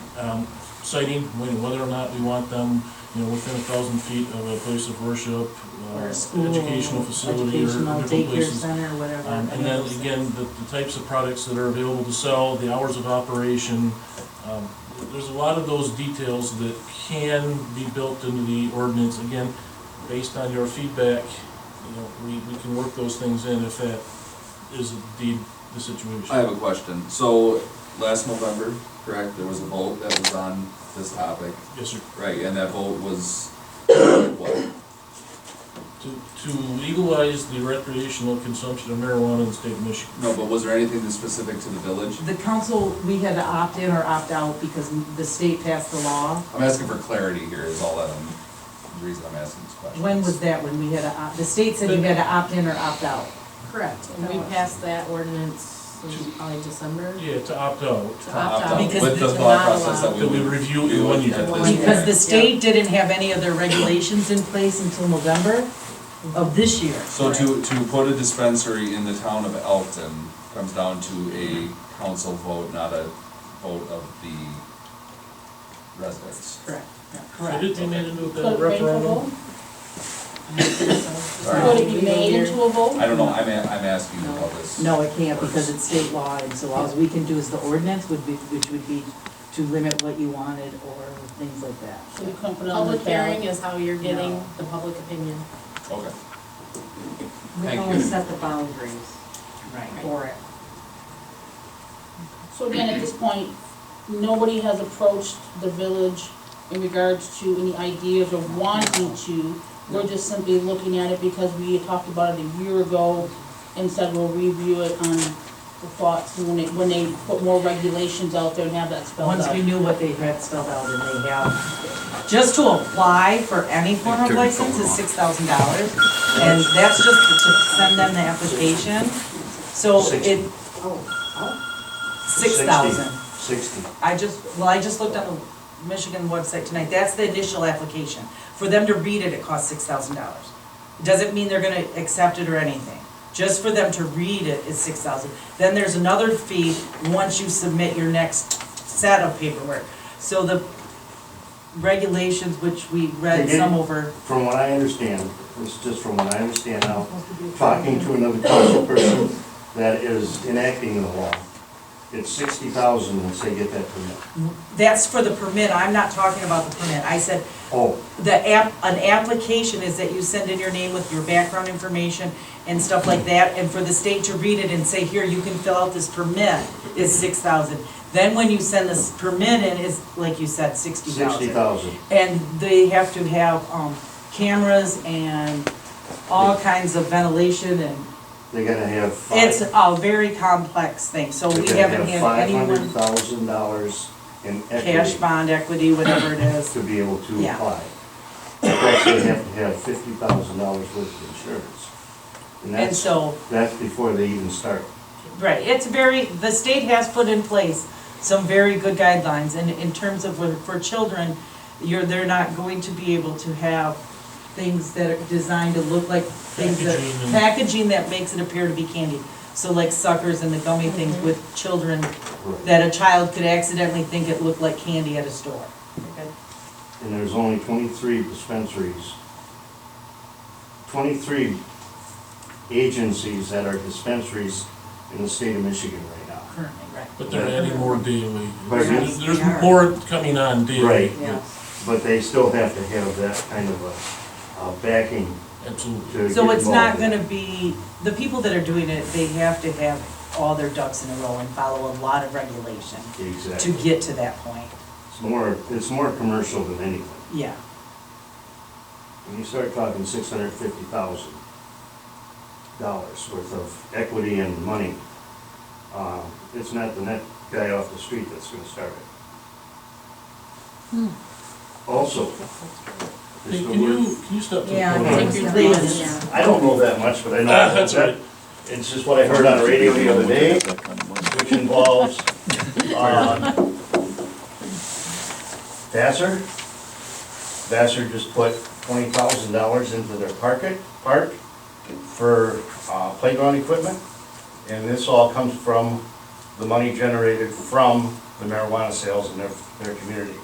um, citing, when- whether or not we want them, you know, within a thousand feet of a place of worship, uh, or a school, educational facility, or educational different daycare places. center, whatever. Um, and then again, the, the types of products that are available to sell, the hours of operation. um, There's a lot of those details that can be built into the ordinance, again, based on your feedback, you know, we, we can work those things in if that is indeed the I situation. have a question. So, last November, correct, there was a vote that was on this topic, Yes, sir. right, and that vote was, what? To, to legalize the recreational consumption of marijuana in the state of Michigan. No, but was there anything that's specific to the village? The council, we had to opt in or opt out because the state passed the law. I'm asking for clarity here is all that I'm, the reason I'm asking this question. When was that, when we had to, opt- the state said you had to opt in or opt out? Correct, and we passed that ordinance in probably December. Yeah, to opt out, To opt Opt out. out. Because With the it's thought not process that allowed. we That we would review do it when it you do at this it. point. Because the state didn't have any of their regulations in place until November of this year. So to, to put a dispensary in the town of Elton comes down to a council vote, not a vote of the residents. Correct, yeah, So correct. did they made into a uh, Could it make a referendum? vote? Sorry. Would it be made into a vote? I don't know, I'm, a- I'm asking how this. No, it can't because it's state law, and so all we can do is the ordinance would be, which would be to limit what you wanted or things like that. Should we come put it on the Public hearing ballot? is how you're getting No. the public opinion. Okay. We Thank can you. only set the boundaries for it. So again, at this point, nobody has approached the village in regards to any ideas or wanting to. We're just simply looking at it because we had talked about it a year ago and said we'll review it on the thoughts when they, when they put more regulations out there and have that spelled Once out. we knew what they had spelled out and they have, just to apply for any form of license is six thousand dollars. And that's just to send them the application, so Sixty. it, six thousand. Sixty. I just, well, I just looked on the Michigan website tonight, that's the initial application. For them to read it, it costs six thousand dollars. Doesn't mean they're gonna accept it or anything. Just for them to read it is six thousand. Then there's another fee once you submit your next set of paperwork. So the regulations, which we They read didn't- some over, From what I understand, this is just from what I understand now, talking to another council person that is enacting the law. It's sixty thousand once they get that permit. that's for the permit, I'm not talking about the permit. I said, Oh, the app, an application is that you send in your name with your background information and stuff like that, and for the state to read it and say, here, you can fill out this permit, is six thousand. Then when you send this permit in, is, like you said, sixty sixty thousand. thousand. And they have to have, um, cameras and all kinds of ventilation and, They're gonna have five. it's a very complex thing, so we haven't had Five hundred anyone thousand dollars in cash equity bond equity, whatever it is. to be able to Yeah. apply. Plus they have to have fifty thousand dollars worth of insurance. And And that's, so, that's before they even start. Right, it's very, the state has put in place some very good guidelines, and in terms of, when- for children, you're, they're not going to be able to have things that are designed to look like things that, Packaging and- packaging that makes it appear to be candy. So like suckers and the gummy things with children, Right. that a child could accidentally think it looked like candy at a store. and there's only twenty-three dispensaries. Twenty-three agencies that are dispensaries in the state of Michigan right now. Currently, right. But they're adding more daily. But There's- it's- Yeah. There's more coming on daily. Right. Yeah. But they still have to have that kind of a, a backing to Absolutely. get So it's not involved in. gonna be, the people that are doing it, they have to have all their ducks in a row and follow a lot of regulation to Exactly. get to that point, It's more, it's more commercial than anything. yeah. When you start talking six hundred and fifty thousand dollars worth of equity and money, uh, it's not the net guy off the street that's gonna start it. Also, is Hey, the Hmm. Can you, word, can you step to the Yeah, podium? I think you're Yeah. I don't know that much, but I know. Ah, that's that- right. It's just what I heard on the radio the other day, which involves, uh, Vassar. Vassar just put twenty thousand dollars into their park, park for uh, playground equipment. And this all comes from the money generated from the marijuana sales and their, their community.